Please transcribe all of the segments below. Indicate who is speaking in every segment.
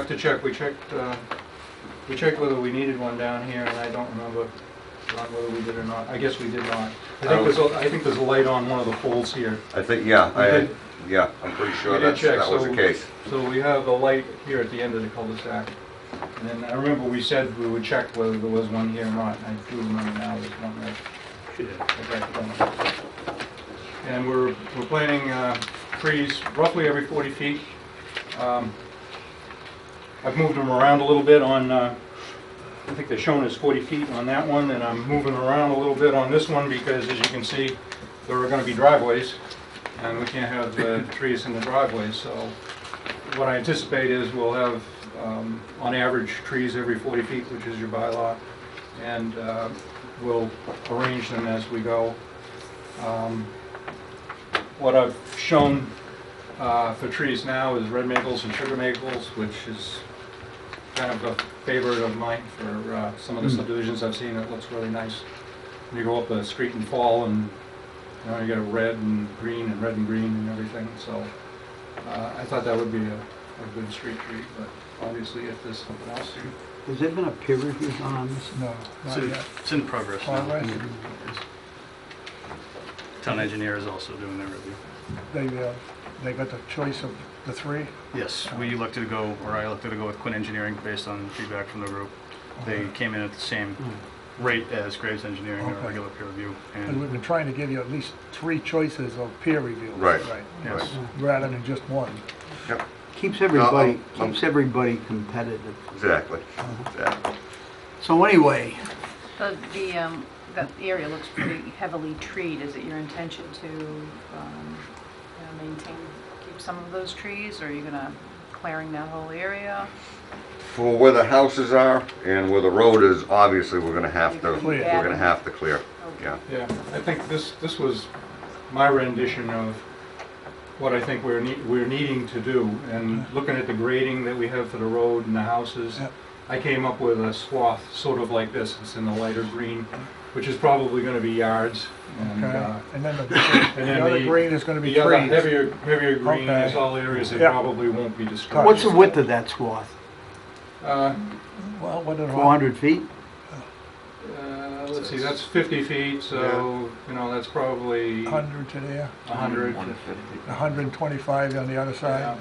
Speaker 1: Have to check, we checked, uh, we checked whether we needed one down here, and I don't remember, Ron, whether we did or not, I guess we did not. I
Speaker 2: I
Speaker 1: think there's, a- I think there's a light on one of the poles here.
Speaker 2: I think, yeah,
Speaker 1: We
Speaker 2: I,
Speaker 1: did-
Speaker 2: yeah, I'm pretty
Speaker 1: We
Speaker 2: sure
Speaker 1: did
Speaker 2: that's,
Speaker 1: check,
Speaker 2: that was the
Speaker 1: so-
Speaker 2: case.
Speaker 1: So we have a light here at the end of the cul-de-sac. And then I remember we said we would check whether there was one here or not, and I do remember now there's one there. Okay. And we're, we're planting uh, trees roughly every 40 feet. Um, I've moved them around a little bit on, uh, I think they're shown as 40 feet on that one, and I'm moving around a little bit on this one because, as you can see, there are going to be driveways, and we can't have the trees in the driveways, so what I anticipate is we'll have, um, on average, trees every 40 feet, which is your bylaw, and uh, we'll arrange them as we go. Um, What I've shown uh, for trees now is red maples and sugar maples, which is kind of a favorite of mine for uh, some of the subdivisions I've seen. It looks really nice. When You go up the street in fall and, you know, you get a red and green and red and green and everything, so uh, I thought that would be a a good street treat, but obviously if there's something else.
Speaker 3: Has there been a peer review done on this?
Speaker 4: No,
Speaker 5: It's
Speaker 4: not
Speaker 5: in-
Speaker 4: yet.
Speaker 5: It's in progress now.
Speaker 4: Conrad,
Speaker 5: Town engineer is also doing their review.
Speaker 4: they, uh, they got the choice of the three.
Speaker 5: Yes, we elected to go, or I elected to go with Quinn Engineering based on feedback from the group. They came in at the same rate as Graves Engineering, their
Speaker 4: Okay.
Speaker 5: regular peer review.
Speaker 4: And we've
Speaker 5: And
Speaker 4: been trying to give you at least three choices of peer review.
Speaker 2: Right.
Speaker 5: yes,
Speaker 4: Rather than just one.
Speaker 2: Yep,
Speaker 3: Keeps everybody,
Speaker 2: I'm-
Speaker 3: keeps everybody competitive.
Speaker 2: exactly,
Speaker 1: Uh-huh.
Speaker 2: exactly.
Speaker 3: So anyway,
Speaker 6: The, the, um, that area looks pretty heavily treed. Is it your intention to, um, you know, maintain, keep some of those trees? Or are you gonna clearing that whole area?
Speaker 2: For where the houses are and where the road is, obviously, we're gonna have to, we're
Speaker 4: Clear.
Speaker 2: gonna have to clear, yeah.
Speaker 1: Yeah, I think this, this was my rendition of what I think we're, nee- we're needing to do, and looking at the grading that we have for the road and the houses,
Speaker 4: Yep.
Speaker 1: I came up with a swath sort of like this, it's in the lighter green, which is probably gonna be yards, and,
Speaker 4: Okay.
Speaker 1: uh,
Speaker 4: And then the,
Speaker 1: and
Speaker 4: the
Speaker 1: then
Speaker 4: other
Speaker 1: the-
Speaker 4: green is gonna be
Speaker 1: the other
Speaker 4: trees.
Speaker 1: heavier, heavier green
Speaker 4: Okay.
Speaker 1: is all areas that
Speaker 4: Yeah.
Speaker 1: probably won't be disturbed.
Speaker 3: what's the width of that swath?
Speaker 1: Uh,
Speaker 4: Well, what did Ron-
Speaker 3: 400 feet?
Speaker 1: uh, let's see, that's fifty feet, so, you know, that's probably a
Speaker 4: 100 to there,
Speaker 1: hundred.
Speaker 4: 125 on the other
Speaker 1: Yeah.
Speaker 4: side.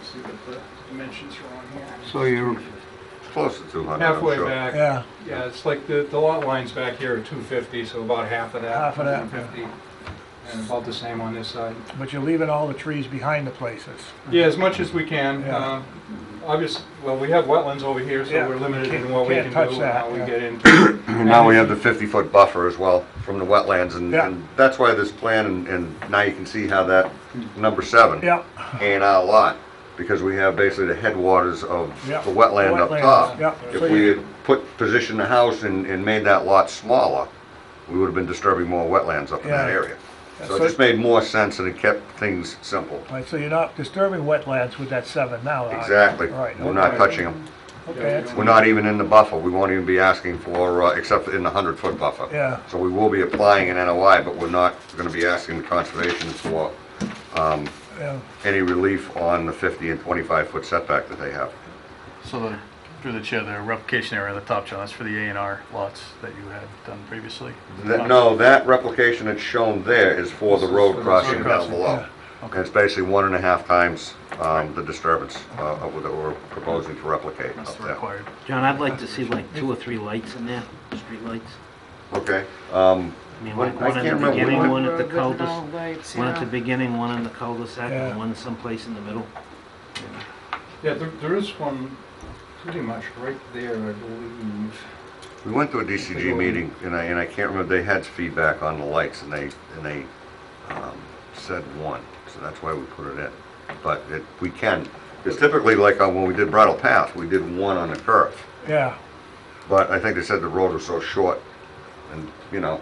Speaker 1: Let's see what the dimensions are on here.
Speaker 3: So you're,
Speaker 2: It's Close to two hundred, I'm
Speaker 1: Halfway
Speaker 2: sure.
Speaker 1: back,
Speaker 4: Yeah,
Speaker 1: yeah, it's like the, the lot line's back here at two fifty, so about half of that.
Speaker 4: Half of that, yeah. Mm-hmm.
Speaker 1: 150, And about the same on this side.
Speaker 4: but you're leaving all the trees behind the places.
Speaker 1: Yeah, as much as we can.
Speaker 4: Yeah.
Speaker 1: Um, Obvious, well, we have wetlands over here, so
Speaker 4: Yeah,
Speaker 1: we're limited
Speaker 4: can't-
Speaker 1: in what we can
Speaker 4: can't
Speaker 1: do and
Speaker 4: touch that,
Speaker 1: how we
Speaker 4: yeah.
Speaker 1: get into.
Speaker 2: And now we have the fifty-foot buffer as well from the wetlands, and,
Speaker 4: Yeah.
Speaker 2: and that's why this plan, and, and now you can see how that, number seven.
Speaker 4: Yeah,
Speaker 2: and our lot, because we have basically the headwaters of
Speaker 4: Yeah.
Speaker 2: the wetland up
Speaker 4: Wetlands, yeah.
Speaker 2: top. If
Speaker 4: So
Speaker 2: we
Speaker 4: you-
Speaker 2: had put, positioned the house and, and made that lot smaller, we would have been disturbing more wetlands up in that
Speaker 4: Yeah.
Speaker 2: area. So it
Speaker 4: So-
Speaker 2: just made more sense and it kept things simple.
Speaker 4: All right, so you're not disturbing wetlands with that seven now, are you?
Speaker 2: Exactly.
Speaker 4: Right,
Speaker 2: We're not
Speaker 4: okay.
Speaker 2: touching them.
Speaker 4: Okay, that's-
Speaker 2: We're not even in the buffer. We won't even be asking for, uh, except in the hundred foot buffer.
Speaker 4: Yeah.
Speaker 2: So we will be applying an NOI, but we're not gonna be asking the conservation for, um,
Speaker 4: yeah.
Speaker 2: any relief on the fifty and twenty-five foot setback that they have.
Speaker 5: so the, through the chair, the replication area, the top John, that's for the A and R lots that you had done previously.
Speaker 2: That- No, that replication that's shown there is for the road crossing down below. And it's basically one and a half times um, the disturbance uh, of what that we're proposing to replicate
Speaker 5: That's
Speaker 2: up
Speaker 5: the
Speaker 2: there.
Speaker 5: required.
Speaker 7: John, I'd like to see like two or three lights in there, street lights.
Speaker 2: Okay, um,
Speaker 7: I mean,
Speaker 2: What-
Speaker 7: like
Speaker 2: I
Speaker 7: one
Speaker 2: can't
Speaker 7: at the
Speaker 2: remember.
Speaker 7: beginning,
Speaker 2: One
Speaker 7: one at the
Speaker 6: Road with no
Speaker 7: cul-de-sac,
Speaker 6: lights,
Speaker 7: one
Speaker 6: yeah.
Speaker 7: at the beginning, one in the cul-de-sac,
Speaker 4: Yeah.
Speaker 7: and one someplace in the middle.
Speaker 1: Yeah, there, there is one pretty much right there, I believe.
Speaker 2: we went to a DCG meeting, and I, and I can't remember, they had feedback on the lights, and they, and they um, said one, so that's why we put it in. But it, we can, it's typically like uh, when we did Brattle Path, we did one on the curve.
Speaker 4: Yeah,
Speaker 2: But I think they said the road was so short, and, you know,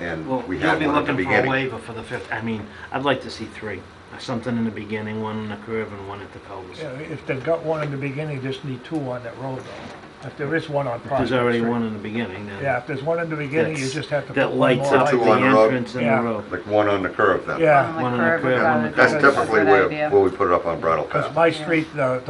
Speaker 2: and
Speaker 7: Well,
Speaker 2: we
Speaker 7: you'll
Speaker 2: had
Speaker 7: be
Speaker 2: one at the
Speaker 7: looking for a
Speaker 2: beginning.
Speaker 7: waiver for the fifth, I mean, I'd like to see three. Something in the beginning, one in the curve, and one at the
Speaker 4: yeah,
Speaker 7: cul-de-sac.
Speaker 4: if they've got one in the beginning, just need two on that road though. If there is one on Prospect
Speaker 7: There's
Speaker 4: Street.
Speaker 7: already one in the beginning, then.
Speaker 4: Yeah, if there's one in the beginning, you
Speaker 7: That's-
Speaker 4: just have to put
Speaker 7: That
Speaker 4: one
Speaker 7: lights
Speaker 4: more
Speaker 7: up
Speaker 2: Two
Speaker 7: the
Speaker 2: on
Speaker 4: light.
Speaker 2: the road.
Speaker 7: entrance and
Speaker 4: Yeah.
Speaker 7: the road.
Speaker 2: like one on the curve then?
Speaker 4: Yeah,
Speaker 6: On the
Speaker 7: Ah, One on the
Speaker 6: curve,
Speaker 7: curb,
Speaker 6: about
Speaker 7: one on
Speaker 6: it.
Speaker 7: the
Speaker 2: That's
Speaker 6: That's a
Speaker 2: typically
Speaker 6: good
Speaker 2: where,
Speaker 6: idea.
Speaker 2: where we put it up on Brattle Path.
Speaker 4: because my street, the,